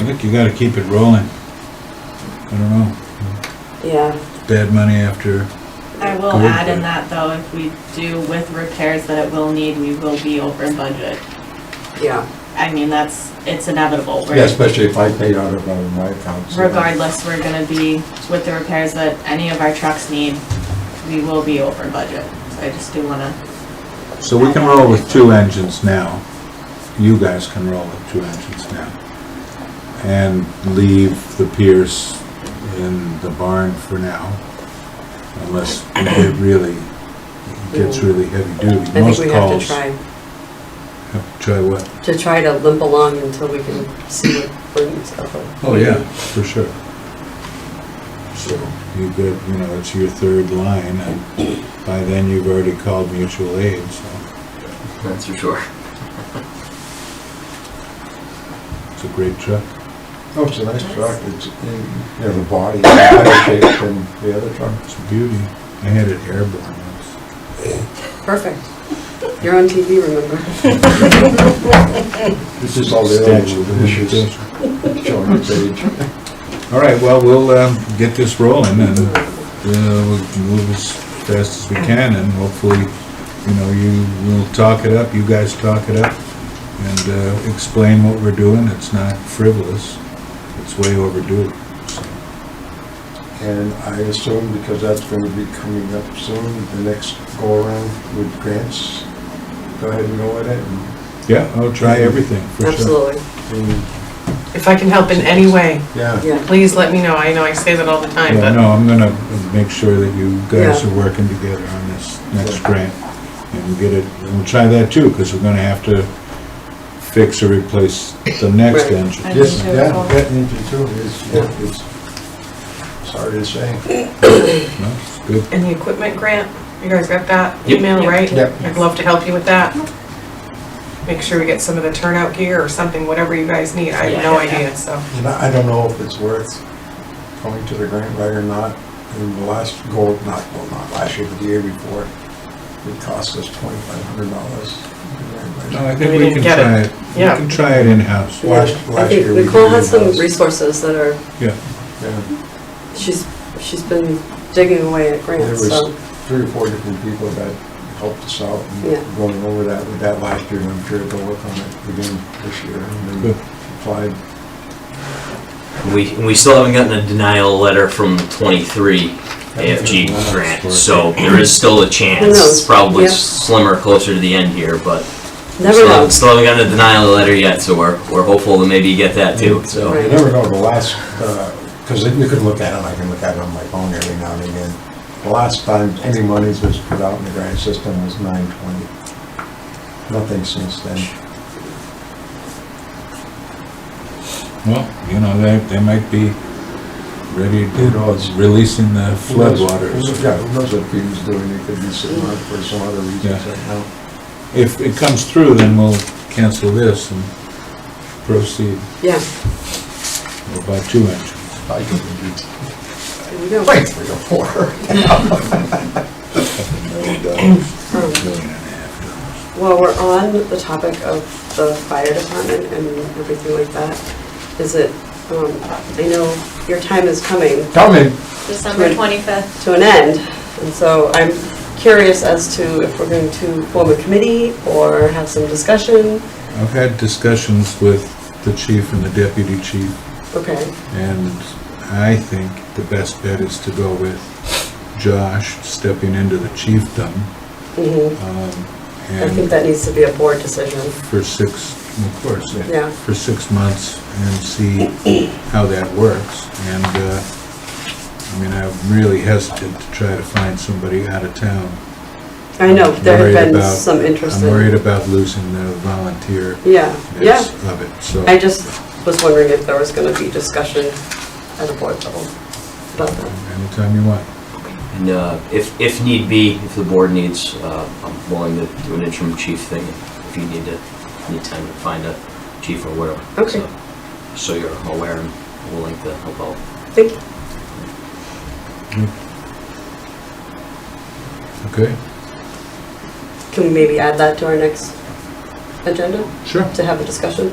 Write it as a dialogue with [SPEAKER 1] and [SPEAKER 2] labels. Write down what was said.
[SPEAKER 1] Rick, you gotta keep it rolling. I don't know,
[SPEAKER 2] Yeah,
[SPEAKER 1] bad money after,
[SPEAKER 3] I will
[SPEAKER 1] Good.
[SPEAKER 3] add in that though, if we do with repairs that it will need, we will be over budget.
[SPEAKER 2] yeah,
[SPEAKER 3] I mean, that's, it's inevitable. We're-
[SPEAKER 4] Yeah, especially if I paid out of uh, my account. so-
[SPEAKER 3] Regardless, we're gonna be, with the repairs that any of our trucks need, we will be over budget. So I just do wanna,
[SPEAKER 1] so we can roll with two engines now. You guys can roll with two engines now. And leave the Pierce in the barn for now, unless it really gets really heavy duty.
[SPEAKER 2] I think
[SPEAKER 1] Most
[SPEAKER 2] we have to
[SPEAKER 1] calls
[SPEAKER 2] try,
[SPEAKER 1] have to Try what?
[SPEAKER 2] to try to limp along until we can see what brings up.
[SPEAKER 1] Oh, yeah, for sure.
[SPEAKER 4] So,
[SPEAKER 1] You've got, you know, it's your third line, and by then you've already called mutual aid, so
[SPEAKER 5] That's for sure.
[SPEAKER 1] it's a great truck.
[SPEAKER 4] no, Oh, it's a nice truck, it's, you know, the body is better shape than the other truck.
[SPEAKER 1] It's a beauty. I had it airborne once.
[SPEAKER 2] Perfect. You're on TV, remember?
[SPEAKER 4] This is all the other
[SPEAKER 1] Statue of
[SPEAKER 4] issues
[SPEAKER 1] Limitations.
[SPEAKER 4] showing the page.
[SPEAKER 1] All right, well, we'll um, get this rolling, and uh, we'll move as fast as we can, and hopefully, you know, you will talk it up, you guys talk it up, and uh, explain what we're doing. It's not frivolous. It's way overdue. so.
[SPEAKER 4] And I assume because that's going to be coming up soon, the next go-around with grants, go ahead and go with it and-
[SPEAKER 1] Yeah, I'll try everything, for sure.
[SPEAKER 2] Absolutely,
[SPEAKER 4] and,
[SPEAKER 6] If I can help in any way,
[SPEAKER 4] yeah.
[SPEAKER 2] yeah.
[SPEAKER 6] please let me know. I know I say that all the time,
[SPEAKER 1] Yeah,
[SPEAKER 6] but
[SPEAKER 1] no, I'm gonna make sure that you guys
[SPEAKER 2] Yeah.
[SPEAKER 1] are working together on this next grant, and we get it, and we'll try that too, because we're gonna have to fix or replace the next
[SPEAKER 2] Right.
[SPEAKER 1] engine.
[SPEAKER 3] I
[SPEAKER 4] Yes,
[SPEAKER 3] think
[SPEAKER 4] that,
[SPEAKER 3] so.
[SPEAKER 4] that engine too is, yeah, it's, sorry to say.
[SPEAKER 1] No, it's good.
[SPEAKER 6] in the equipment grant, you guys got that
[SPEAKER 5] Yep.
[SPEAKER 6] email, right?
[SPEAKER 4] Yep.
[SPEAKER 6] I'd love to help you with that. Make sure we get some of the turnout gear or something, whatever you guys need. I have no
[SPEAKER 3] Yeah.
[SPEAKER 6] idea, so.
[SPEAKER 4] And I I don't know if it's worth going to the grant writer or not. And the last go, not, well, not last year, but the year before, it cost us twenty-five hundred
[SPEAKER 1] No, I
[SPEAKER 4] dollars.
[SPEAKER 1] think we
[SPEAKER 6] We didn't
[SPEAKER 1] can
[SPEAKER 6] get it.
[SPEAKER 1] try it, we
[SPEAKER 6] Yeah.
[SPEAKER 1] can try it in-house.
[SPEAKER 4] Last-
[SPEAKER 2] I
[SPEAKER 4] last
[SPEAKER 2] think
[SPEAKER 4] year we
[SPEAKER 2] Nicole
[SPEAKER 4] did
[SPEAKER 2] has some
[SPEAKER 4] those.
[SPEAKER 2] resources that are,
[SPEAKER 1] Yeah,
[SPEAKER 4] Yeah,
[SPEAKER 2] she's, she's been digging away at
[SPEAKER 4] There
[SPEAKER 2] grants,
[SPEAKER 4] was
[SPEAKER 2] so,
[SPEAKER 4] three or four different people that helped us out
[SPEAKER 2] Yeah.
[SPEAKER 4] and going over that with that last year. And I'm sure they'll work on it again this year and then
[SPEAKER 1] Good.
[SPEAKER 4] applied.
[SPEAKER 5] We, we still haven't gotten a denial letter from 23 AFG grant, so there is still a chance.
[SPEAKER 2] Who knows?
[SPEAKER 5] It's Probably
[SPEAKER 2] Yeah.
[SPEAKER 5] slimmer closer to the end here, but
[SPEAKER 2] never know.
[SPEAKER 5] still still haven't gotten a denial letter yet, so we're, we're hopeful to maybe get that too, so.
[SPEAKER 2] Right.
[SPEAKER 4] You never know, the last, because you can look at it, I can look at it on my phone every now and again. The last time any monies was put out in the grant system was nine twenty. Nothing since then.
[SPEAKER 1] well, you know, they, they might be ready
[SPEAKER 4] Who knows?
[SPEAKER 1] to, releasing the
[SPEAKER 4] Who knows-
[SPEAKER 1] floodwaters.
[SPEAKER 4] who- Yeah, who knows what Peter's doing, it could be sitting on it for some other reasons
[SPEAKER 1] Yeah.
[SPEAKER 4] right now.
[SPEAKER 1] If it comes through, then we'll cancel this and proceed,
[SPEAKER 2] Yeah,
[SPEAKER 1] we'll buy two engines.
[SPEAKER 4] I can do
[SPEAKER 2] there we go.
[SPEAKER 4] like three or four.
[SPEAKER 2] Um,
[SPEAKER 1] Million and a half
[SPEAKER 2] Well, we're on the topic of the fire department and everything like that. Is it, um, I know your time is coming
[SPEAKER 4] Tell me,
[SPEAKER 3] December twenty-fifth.
[SPEAKER 2] to an end, and so I'm curious as to if we're going to form a committee or have some discussion.
[SPEAKER 1] I've had discussions with the chief and the deputy chief,
[SPEAKER 2] Okay,
[SPEAKER 1] and I think the best bet is to go with Josh stepping into the chiefdom,
[SPEAKER 2] mhm.
[SPEAKER 1] um,
[SPEAKER 2] I think
[SPEAKER 1] and
[SPEAKER 2] that needs to be a board decision,
[SPEAKER 1] for six, of course,
[SPEAKER 2] yeah.
[SPEAKER 1] for six months and see how that works. And, uh, I mean, I'm really hesitant to try to find somebody out of town.
[SPEAKER 2] I know, there
[SPEAKER 1] Worried
[SPEAKER 2] have been
[SPEAKER 1] about-
[SPEAKER 2] some interest
[SPEAKER 1] I'm
[SPEAKER 2] in.
[SPEAKER 1] worried about losing the volunteer
[SPEAKER 2] Yeah, yeah.
[SPEAKER 1] of it, so.
[SPEAKER 2] I just was wondering if there was gonna be discussion at a board level about that.
[SPEAKER 1] Anytime you want.
[SPEAKER 5] And uh, if, if need be, if the board needs, uh, I'm willing to do an interim chief thing if you need to, need time to find a chief or whatever.
[SPEAKER 2] Okay.
[SPEAKER 5] So- So you're aware and willing to help out.
[SPEAKER 2] Thank you.
[SPEAKER 1] Okay,
[SPEAKER 2] Can we maybe add that to our next agenda
[SPEAKER 1] sure.
[SPEAKER 2] to have a discussion?